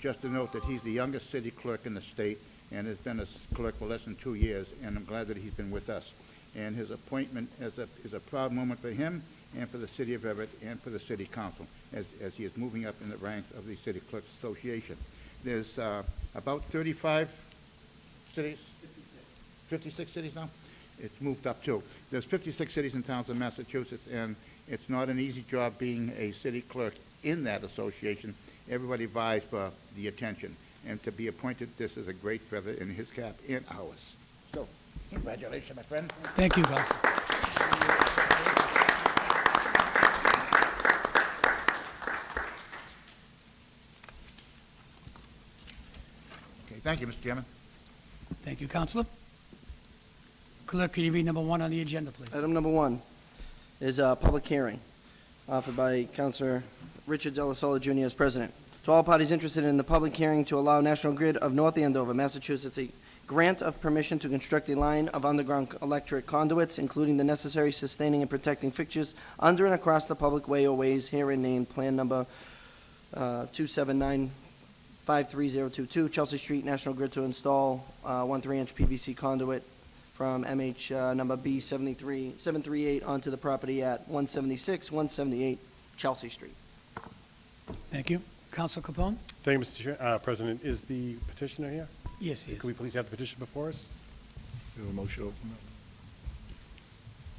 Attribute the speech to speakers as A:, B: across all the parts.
A: Just to note that he's the youngest city clerk in the state and has been a s- clerk for less than two years, and I'm glad that he's been with us. And his appointment is a, is a proud moment for him and for the city of Everett and for the city council as, as he is moving up in the ranks of the City Clerks Association. There's uh, about 35 cities? 56 cities now? It's moved up too. There's 56 cities and towns in Massachusetts, and it's not an easy job being a city clerk in that association. Everybody vies for the attention, and to be appointed, this is a great feather in his cap and ours. So, congratulations, my friend.
B: Thank you, Council.
A: Okay, thank you, Mr. Chairman.
B: Thank you, Counselor. Clerk, could you read number one on the agenda, please?
C: Item number one is a public hearing offered by Counselor Richard Delasola Jr. as president. To all parties interested in the public hearing to allow National Grid of North Andover, Massachusetts, a grant of permission to construct a line of underground electric conduits, including the necessary sustaining and protecting fixtures under and across the public way or ways herein named Plan Number uh, 279-53022, Chelsea Street, National Grid to install uh, one 3-inch PVC conduit from MH uh, number B 73, 738 onto the property at 176, 178 Chelsea Street.
B: Thank you. Counselor Capone?
D: Thank you, Mr. Chair- uh, President. Is the petitioner here?
B: Yes, he
D: Could we
B: is.
D: please have the petition before us?
A: Is there a motion open?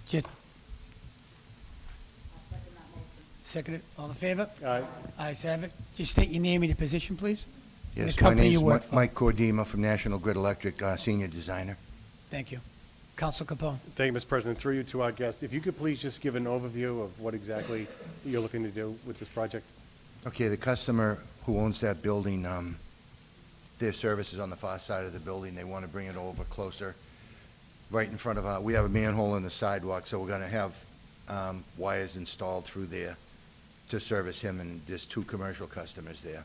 B: Just... Second it. All in favor?
D: Uh,
B: Ayes have it. Just state your name and your position, please. and the
E: Yes, my
B: company you
E: name's
B: work
E: Mi-
B: for.
E: Mike Cordima from National Grid Electric, uh, senior designer.
B: Thank you. Counselor Capone?
D: Thank you, Mr. President. Through you to our guest, if you could please just give an overview of what exactly you're looking to do with this project?
E: Okay, the customer who owns that building, um, their service is on the far side of the building. They want to bring it over closer, right in front of our, we have a manhole in the sidewalk, so we're going to have um, wires installed through there to service him, and there's two commercial customers there.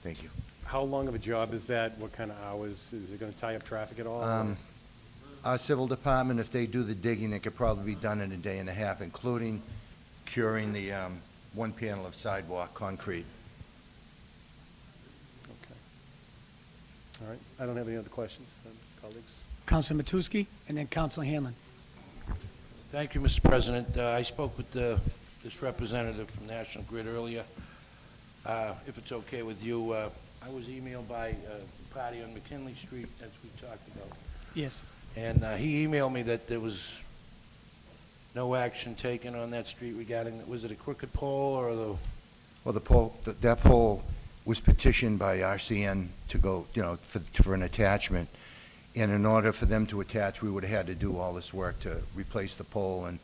E: Thank you.
D: How long of a job is that? What kind of hours? Is it going to tie up traffic at all?
E: Um, Our civil department, if they do the digging, it could probably be done in a day and a half, including curing the um, one panel of sidewalk concrete.
D: Okay. All right. I don't have any other questions, um, colleagues.
B: Counselor Matusky, and then Counselor Hanlon.
F: Thank you, Mr. President. Uh, I spoke with uh, this representative from National Grid earlier. Uh, If it's okay with you, uh, I was emailed by uh, the party on McKinley Street, as we talked about,
B: Yes.
F: and uh, he emailed me that there was no action taken on that street regarding, was it a crooked pole or the,
E: Well, the poll, th- that poll was petitioned by RCN to go, you know, for, for an attachment. And in order for them to attach, we would have had to do all this work to replace the pole. And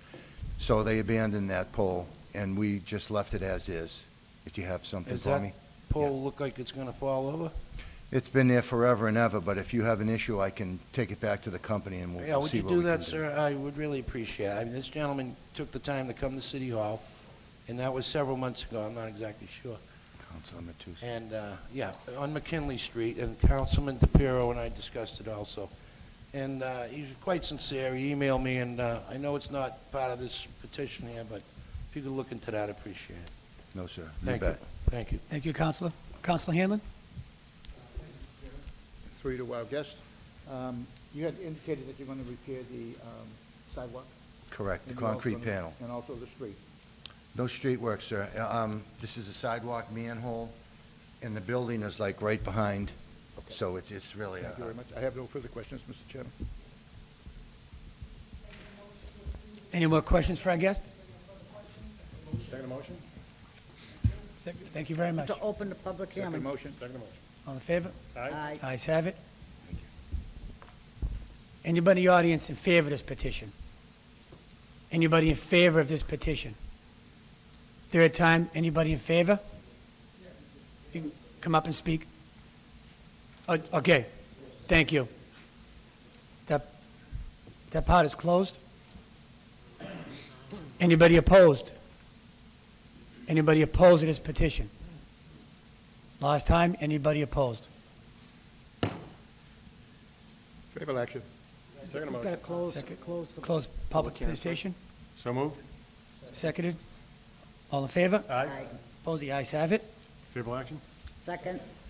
E: so they abandoned that poll, and we just left it as is. If you have something
F: does
E: for
F: that
E: me.
F: pole look like it's going to fall over?
E: It's been there forever and ever, but if you have an issue, I can take it back to the company and we'll
F: Yeah,
E: we'll
F: would
E: see
F: you
E: what we can do.
F: do that, sir? I would really appreciate it. I mean, this gentleman took the time to come to City Hall, and that was several months ago, I'm not exactly sure.
E: Councilor Matus.
F: And, uh, yeah, on McKinley Street, and Councilman DePiero and I discussed it also. And uh, he's quite sincere, he emailed me, and uh, I know it's not part of this petition here, but if you could look into that, I'd appreciate it.
E: No, sir. You
F: Thank you.
E: bet.
F: Thank you.
B: Thank you, Counselor. Counselor Hanlon?
A: Three to our guest. Um, You had indicated that you're going to repair the um, sidewalk.
E: Correct, the
A: and you're also
E: concrete
A: gonna-
E: panel.
A: And also the street.
E: No street work, sir. Uh, Um, this is a sidewalk manhole, and the building is like right behind, so it's, it's really a...
A: Thank you very much. I have no further questions, Mr. Chairman.
B: Any more questions for our guest?
D: Second motion?
B: Thank you very much.
G: To open the public
A: Second
G: hearing.
A: motion?
D: Second motion.
B: All in favor?
D: Aye.
G: Aye.
B: Ayes have it. Anybody in the audience in favor of this petition? Anybody in favor of this petition? Third time, anybody in favor? You can come up and speak. O- Okay, thank you. That, that part is closed. Anybody opposed? Anybody opposed to this petition? Last time, anybody opposed?
A: Favorable action.
D: Second
G: We've got to
D: motion.
G: close,
B: Second.
G: close the
B: Close public
C: hearing.
B: petition,
D: So moved?
B: seconded. All in favor?
D: Aye.
G: Aye.
B: Opposed, the ayes have it.
D: Favorable action?
G: second.